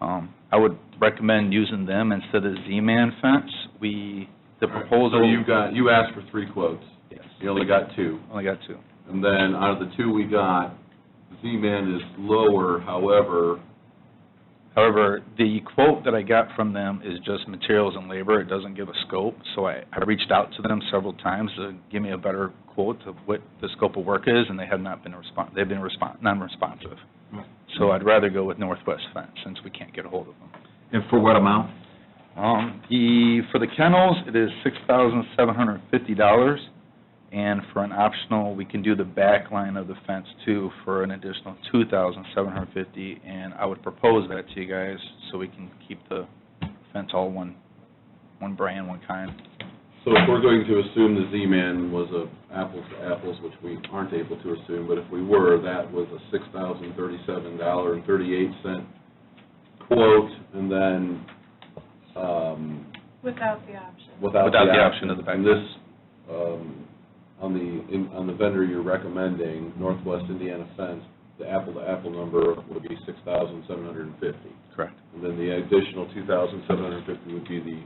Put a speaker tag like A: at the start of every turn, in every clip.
A: Um, I would recommend using them instead of Z-Man fence. We, the
B: All right,
A: proposal.
B: So you got, you asked for three quotes.
A: Yes.
B: You only got two.
A: Only got two.
B: And then out of the two we got, Z-Man is lower, however,
A: However, the quote that I got from them is just materials and labor, it doesn't give a scope, so I, I reached out to them several times to give me a better quote of what the scope of work is, and they have not been respon they've been respon non-responsive. So I'd rather go with Northwest Fence, since we can't get a hold of them.
C: And for what amount?
A: Um, the, for the kennels, it is six thousand seven hundred and fifty dollars, and for an optional, we can do the back line of the fence too for an additional two thousand seven hundred and fifty, and I would propose that to you guys, so we can keep the fence all one, one brand, one kind.
B: so if we're going to assume the Z-Man was a apples to apples, which we aren't able to assume, but if we were, that was a six thousand thirty-seven dollar and thirty-eight cent quote, and then, um,
D: Without the option.
B: without the
A: Without
B: option.
A: the option of the back.
B: And this, um, on the, in- on the vendor you're recommending, Northwest Indiana Fence, the apple-to-apple number would be six thousand seven hundred and fifty.
A: Correct.
B: And then the additional two thousand seven hundred and fifty would be the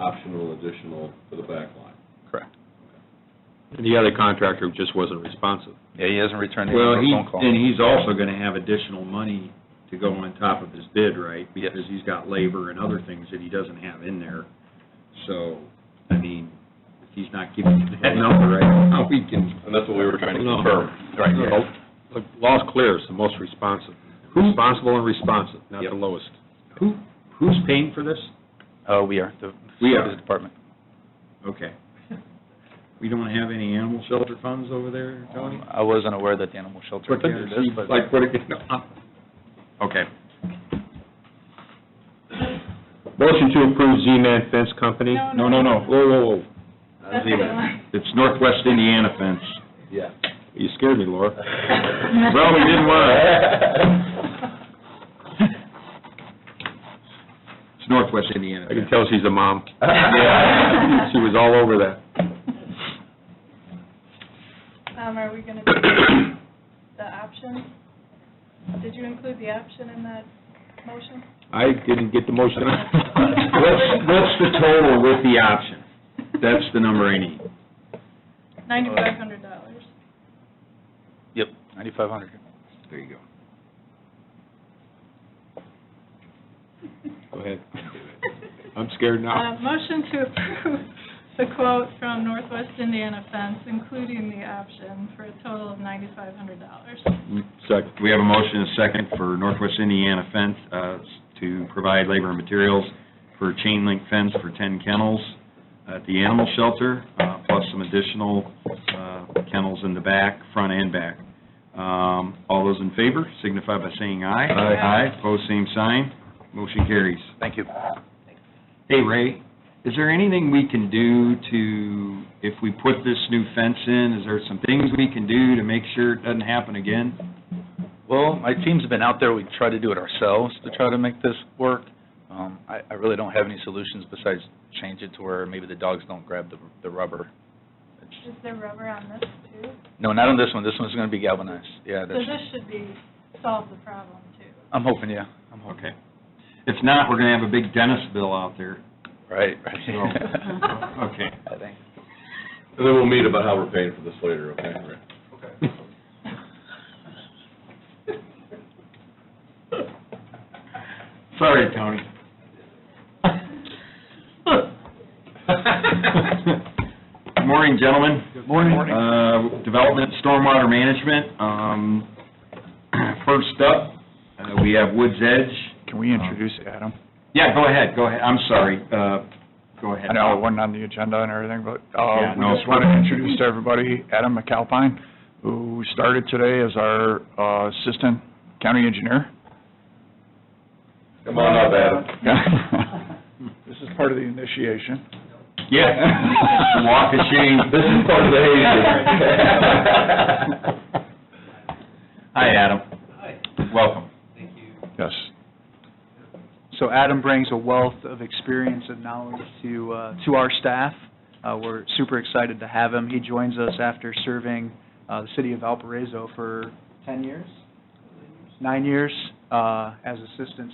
B: optional additional for the back line.
A: Correct.
C: The other contractor just wasn't responsive.
A: Yeah, he hasn't returned any
C: Well,
A: of
C: he,
A: our phone
C: and
A: calls.
C: he's also going to have additional money to go on top of his bid, right?
A: Yes.
C: Because he's got labor and other things that he doesn't have in there. So, I mean, if he's not giving you that number right now, we can.
B: And that's what we were trying to
C: No.
B: confirm.
A: Right.
E: The law's clear, it's the most responsive, responsible and responsive, not
A: Yep.
E: the lowest.
C: Who, who's paying for this?
A: Uh, we are, the
C: We are.
A: facilities department.
C: Okay. We don't have any animal shelter funds over there, Tony?
A: Um, I wasn't aware that the animal shelter
C: What the-
A: included this, but.
C: Like, what, okay.
E: Motion to approve Z-Man Fence Company?
D: No,
C: No, no, no.
E: Whoa, whoa, whoa,
D: That's the one.
C: It's Northwest Indiana Fence.
B: Yeah.
E: you scared me, Laura.
C: Well, we didn't
B: want
C: It's Northwest Indiana
E: I
C: Fence.
E: can tell she's a mom.
D: Yeah.
E: She was all over that.
D: Um, are we gonna do the option? Did you include the option in that motion?
E: I didn't get the motion.
C: What's, what's the total with the option? That's the number I need.
D: Ninety-five hundred dollars.
A: Yep, ninety-five hundred.
C: There you go.
E: Go ahead. I'm scared now.
D: Uh, motion to approve the quote from Northwest Indiana Fence, including the option, for a total of ninety-five hundred dollars.
C: Second. We have a motion and a second for Northwest Indiana Fence uh, to provide labor and materials for chain link fence for 10 kennels at the animal shelter, uh, plus some additional uh, kennels in the back, front and back. Um, All those in favor signify by saying aye.
D: Aye.
C: Aye, pose same sign, motion carries.
A: Thank you.
C: Hey, Ray, is there anything we can do to, if we put this new fence in, is there some things we can do to make sure it doesn't happen again?
A: Well, my team's been out there, we try to do it ourselves to try to make this work. Um, I, I really don't have any solutions besides change it to where maybe the dogs don't grab the, the rubber. It's-
D: Is there rubber on this too?
A: No, not on this one, this one's gonna be galvanized, yeah,
D: So
A: that's,
D: this should be, solve the problem too.
A: I'm hoping, yeah, I'm hoping,
C: Okay. If not, we're gonna have a big dentist bill out there.
A: right, right.
C: Oh, okay.
A: I think,
B: And then we'll meet about how we're paying for this later, okay, Rick?
C: Sorry, Tony. Good Morning, gentlemen. Good morning. Uh, Development Stormwater Management, um, first up, uh, we have Woods Edge.
F: Can we introduce Adam?
C: Yeah, go ahead, go ahead, I'm sorry, uh, go ahead.
F: I know it wasn't on the agenda and everything, but
C: Yeah,
F: uh, we
C: no.
F: just want to introduce to everybody Adam McAlpine, who started today as our uh, assistant county engineer.
B: Come on up, Adam.
F: This is part of the initiation.
C: Yeah, walk of shame.
B: This is part of the hazing.
C: Hi, Adam. Hi. Welcome.
F: Yes.
G: So Adam brings a wealth of experience and knowledge to, uh, to our staff. Uh, we're super excited to have him. He joins us after serving, uh, the city of Valparaiso for ten years? Nine years, uh, as assistant